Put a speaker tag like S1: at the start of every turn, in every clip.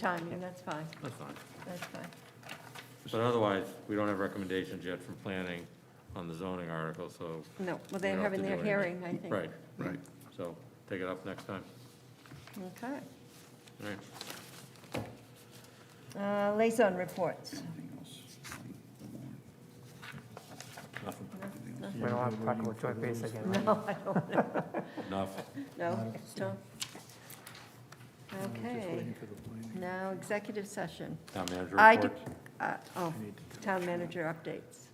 S1: Timing, that's fine,
S2: That's fine.
S1: that's fine.
S2: But otherwise, we don't have recommendations yet from planning on the zoning article, so,
S1: No, well,
S2: We
S1: they're
S2: don't have
S1: having
S2: to
S1: their
S2: do
S1: hearing, I think.
S2: right,
S3: Right.
S2: so take it up next time.
S1: Okay.
S2: All right.
S1: Uh, Liaison reports.
S3: Anything else? The warrant.
S2: Nothing.
S3: Anything else?
S4: We don't have to talk about joint base again, right?
S1: No, I don't know,
S2: Enough.
S1: no, don't. Okay,
S3: Waiting for the planning.
S1: now executive session.
S2: Town manager
S1: I, de-
S2: report.
S1: uh, oh,
S3: I need to-
S1: town manager updates.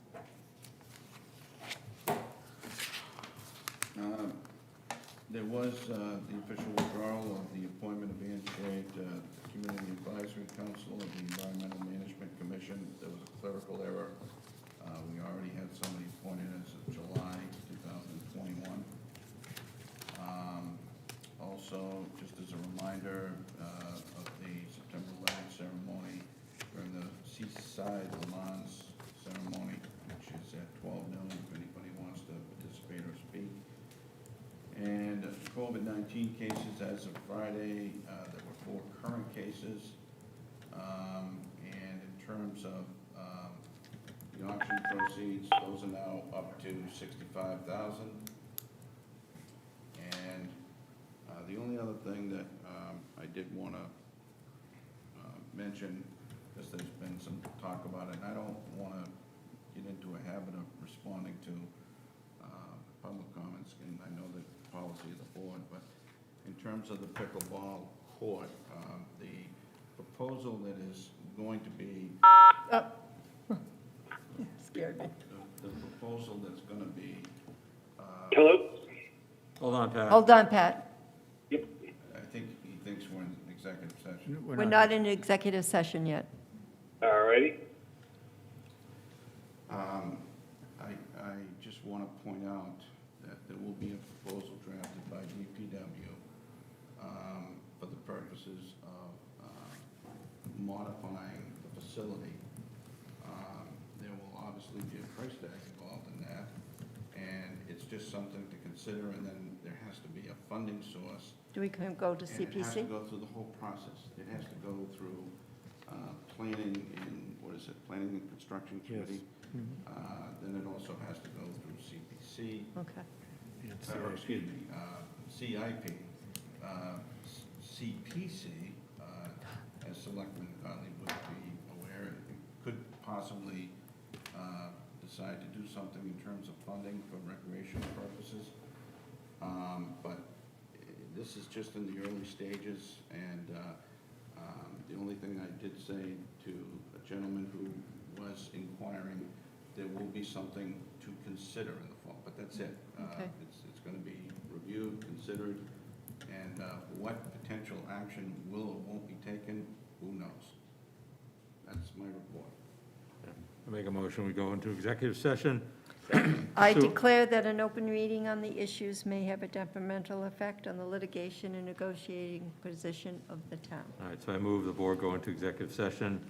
S5: Um, There was uh, the official withdrawal of the appointment of Ann Shea to the Community Advisory Council of the Environmental Management Commission. There was a clerical error. Uh, We already had somebody appointed as of July 2021. Um, Also, just as a reminder uh, of the September 11th ceremony, during the Seaside Le Mans ceremony, which is at 12 noon, if anybody wants to participate or speak. And COVID-19 cases as of Friday, uh, there were four current cases. Um, And in terms of um, the auction proceeds, those are now up to 65000 And uh, the only other thing that um, I did want to mention, because there's been some talk about it, and I don't want to get into a habit of responding to uh, public comments, and I know the policy of the board, but in terms of the pickleball court, um, the proposal that is going to be,
S1: Uh, Scared me.
S5: the the proposal that's going to be,
S6: Hello?
S2: Hold on, Pat.
S1: Hold on, Pat.
S6: Yep.
S5: I think he thinks we're in executive session.
S1: We're not in executive session yet.
S6: All righty.
S5: Um, I, I just want to point out that there will be a proposal drafted by DPW um, for the purposes of uh, modifying the facility. Um, There will obviously be a price tag involved in that, and it's just something to consider, and then there has to be a funding source
S1: Do we can go to
S5: and it has to
S1: CPC?
S5: go through the whole process. It has to go through uh, planning and, what is it, planning and construction committee? Uh, Then it also has to go through CPC,
S1: Okay.
S3: It's
S5: or,
S3: the-
S5: excuse me, uh, CIP. Uh, s- CPC, uh, as Selectman Gottlieb would be aware, it could possibly uh, decide to do something in terms of funding for recreational purposes. Um, But eh, this is just in the early stages, and uh, um, the only thing I did say to a gentleman who was inquiring, there will be something to consider in the fall, but that's it. Uh,
S1: Okay.
S5: It's, it's going to be reviewed, considered, and uh, what potential action will or won't be taken, who knows? That's my report.
S2: I Make a motion, we go into executive session.
S1: I
S2: So-
S1: declare that an open meeting on the issues may have a detrimental effect on the litigation and negotiating position of the town.
S2: All right, so I move the board go into executive session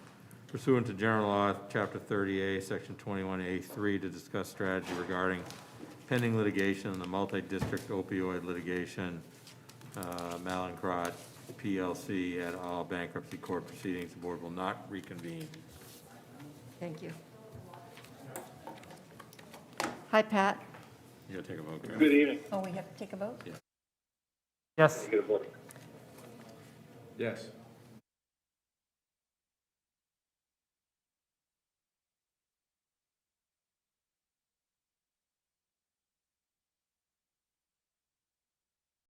S2: pursuant to general law, chapter 30A, section 21A3, to discuss strategy regarding pending litigation in the multi-district opioid litigation, uh, Malincrot PLC et al. bankruptcy court proceedings. The board will not reconvene.
S1: Thank you. Hi, Pat.
S2: You gotta take a vote, Karen.
S6: Good evening.
S1: Oh, we have to take a vote?
S4: Yes.
S6: Good morning.
S5: Yes.